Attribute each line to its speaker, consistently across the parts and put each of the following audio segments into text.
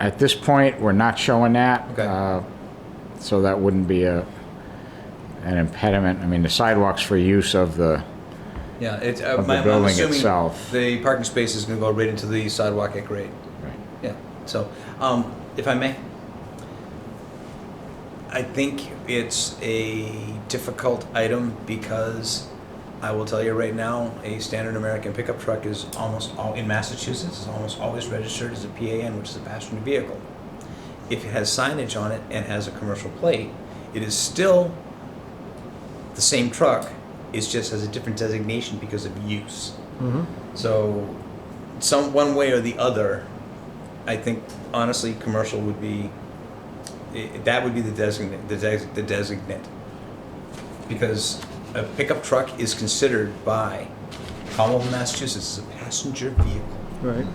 Speaker 1: At this point, we're not showing that.
Speaker 2: Okay.
Speaker 1: uh, So that wouldn't be a, an impediment. I mean, the sidewalks for use of the,
Speaker 2: Yeah, it's, uh,
Speaker 1: Of the
Speaker 2: my- I'm
Speaker 1: building
Speaker 2: assuming
Speaker 1: itself.
Speaker 2: the parking space is gonna go right into the sidewalk at grade. Yeah, so, um, if I may, I think it's a difficult item because I will tell you right now, a standard American pickup truck is almost all, in Massachusetts, is almost always registered as a PAN, which is a passenger vehicle. If it has signage on it and has a commercial plate, it is still the same truck, it just has a different designation because of use. So, some, one way or the other, I think honestly, commercial would be, i- that would be the designate, the des- the designate. Because a pickup truck is considered by Commonwealth of Massachusetts as a passenger vehicle.
Speaker 3: Right.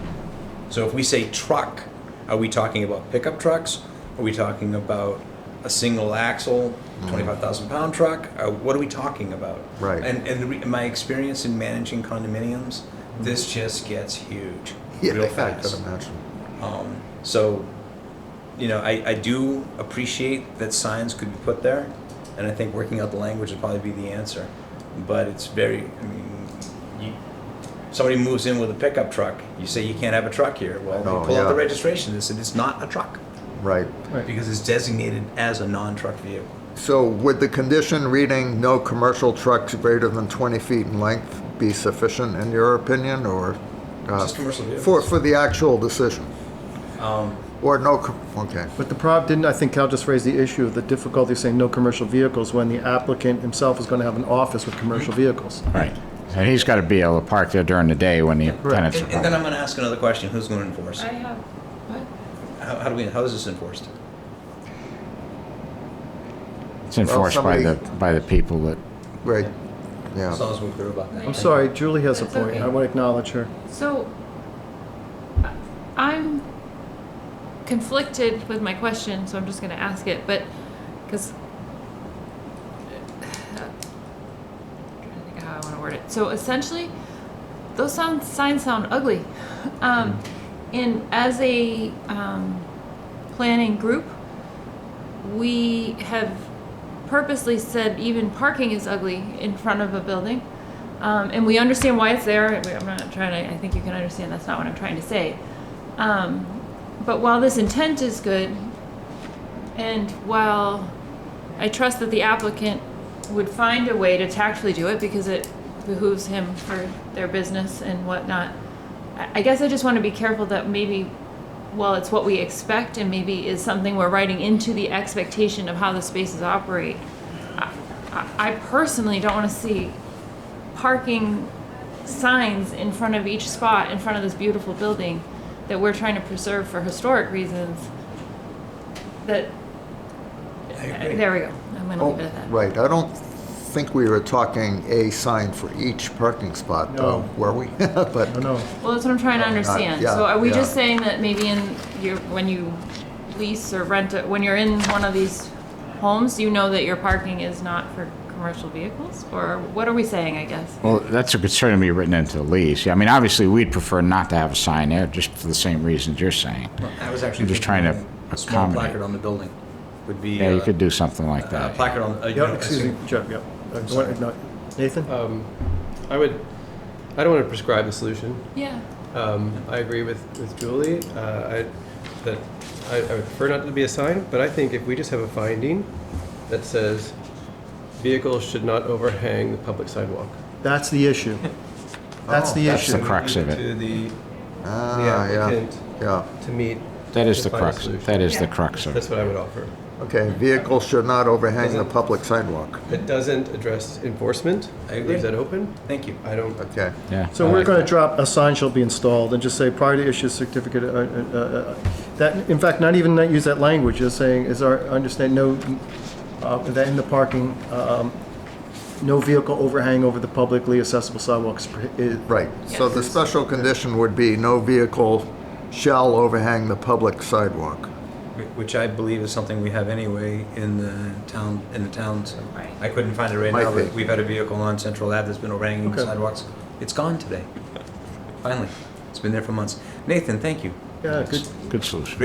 Speaker 2: So if we say truck, are we talking about pickup trucks? Are we talking about a single axle, twenty-five thousand pound truck? Uh, what are we talking about?
Speaker 3: Mm-hmm. Right.
Speaker 2: And, and the re- my experience in managing condominiums, this just gets huge,
Speaker 3: Yeah,
Speaker 2: real
Speaker 3: I
Speaker 2: fast.
Speaker 3: could imagine.
Speaker 2: Um, so, you know, I, I do appreciate that signs could be put there, and I think working out the language would probably be the answer. But it's very, I mean, you, somebody moves in with a pickup truck, you say you can't have a truck here. Well,
Speaker 3: Oh,
Speaker 2: they pull out the
Speaker 3: yeah.
Speaker 2: registration and said it's not a truck
Speaker 3: Right.
Speaker 2: because it's designated as a non-truck vehicle.
Speaker 3: So would the condition reading no commercial trucks greater than 20 feet in length be sufficient in your opinion or? uh,
Speaker 2: Just commercial vehicles.
Speaker 3: For, for the actual decision? Or no, com- okay,
Speaker 4: But the prob, didn't, I think Cal just raised the issue of the difficulty of saying no commercial vehicles when the applicant himself is gonna have an office with commercial vehicles.
Speaker 1: right. And he's got to be able to park there during the day when the
Speaker 2: And,
Speaker 1: tenants are
Speaker 2: and then
Speaker 1: home.
Speaker 2: I'm going to ask another question: Who's going to enforce?
Speaker 5: I have, what?
Speaker 2: How, how do we? How is this enforced?
Speaker 1: It's enforced by the,
Speaker 3: somebody-
Speaker 1: by the people that,
Speaker 3: great,
Speaker 2: As
Speaker 3: yeah.
Speaker 2: long as we're clear about that.
Speaker 4: I'm sorry, Julie has a
Speaker 5: That's
Speaker 4: point,
Speaker 5: okay.
Speaker 4: I wanna acknowledge her.
Speaker 5: So, I- I'm conflicted with my question, so I'm just gonna ask it, but, because. Trying to think how I wanna word it. So essentially, those sound, signs sound ugly. Um, and as a, um, planning group, we have purposely said even parking is ugly in front of a building. Um, and we understand why it's there. We- I'm not trying to, I think you can understand that's not what I'm trying to say. Um, but while this intent is good, and while I trust that the applicant would find a way to tactfully do it because it behooves him for their business and whatnot, I, I guess I just want to be careful that maybe while it's what we expect and maybe is something we're writing into the expectation of how the spaces operate, I, I I personally don't want to see parking signs in front of each spot in front of this beautiful building that we're trying to preserve for historic reasons that
Speaker 2: I agree.
Speaker 5: there we go i'm going to
Speaker 3: Oh,
Speaker 5: leave it at that
Speaker 3: Right, I don't think we were talking a sign for each parking spot though,
Speaker 4: No.
Speaker 3: were we? But,
Speaker 4: No, no,
Speaker 5: well that's what i'm trying to understand
Speaker 3: Uh, yeah,
Speaker 5: so are we
Speaker 3: yeah.
Speaker 5: just saying that maybe in your when you lease or rent it when you're in one of these homes you know that your parking is not for commercial vehicles or what are we saying i guess
Speaker 1: well, that's a concern to be written into the lease. Yeah, I mean, obviously, we'd prefer not to have a sign there, just for the same reasons you're saying.
Speaker 2: I was actually
Speaker 1: I'm just trying
Speaker 2: thinking
Speaker 1: to
Speaker 2: a small
Speaker 1: accommodate.
Speaker 2: placard on the building would be.
Speaker 1: Yeah, you
Speaker 2: uh,
Speaker 1: could do something like
Speaker 2: Uh,
Speaker 1: that.
Speaker 2: placard on, uh, you
Speaker 4: yeah,
Speaker 2: know,
Speaker 4: excuse me, Jeff, yeah. Uh, what-
Speaker 2: sorry.
Speaker 4: no, Nathan?
Speaker 6: Um, I would, I don't want to prescribe the solution.
Speaker 5: yeah
Speaker 6: Um, I agree with, with Julie, uh, I, that I, I would prefer not to be a sign, but I think if we just have a finding that says vehicles should not overhang the public sidewalk.
Speaker 4: That's the issue. That's the
Speaker 1: That's the
Speaker 4: issue.
Speaker 1: crux of it.
Speaker 6: To the,
Speaker 3: ah, yeah,
Speaker 6: applicant.
Speaker 3: yeah.
Speaker 6: to meet,
Speaker 1: That is the
Speaker 6: Find a
Speaker 1: crux,
Speaker 6: solution.
Speaker 1: that is the crux of it.
Speaker 6: that's what I would offer.
Speaker 3: Okay, vehicles should not overhang the
Speaker 6: Doesn't-
Speaker 3: public sidewalk.
Speaker 6: It doesn't address enforcement.
Speaker 2: I agree.
Speaker 6: Leaves that open.
Speaker 2: Thank you.
Speaker 6: I don't,
Speaker 3: Okay,
Speaker 1: Yeah.
Speaker 4: So
Speaker 1: I
Speaker 4: we're
Speaker 1: like
Speaker 4: going to
Speaker 1: that.
Speaker 4: drop, a sign shall be installed, and just say prior to issue certificate, uh, uh, uh, uh, that, in fact, not even not use that language, just saying, is our, understand, no, uh, that in the parking, um, no vehicle overhang over the publicly accessible sidewalks. uh, is-
Speaker 3: right. So the special condition would be no vehicle shall overhang the public sidewalk.
Speaker 2: Wh- Which I believe is something we have anyway in the town, in the towns.
Speaker 5: Right.
Speaker 2: I couldn't find it right
Speaker 3: Might
Speaker 2: now, but
Speaker 3: be.
Speaker 2: we've had a vehicle on Central Ave that's been overhanging the
Speaker 4: Okay.
Speaker 2: sidewalks. It's gone today. Finally. It's been there for months. Nathan, thank you.
Speaker 4: Yeah, good,
Speaker 1: Good solution.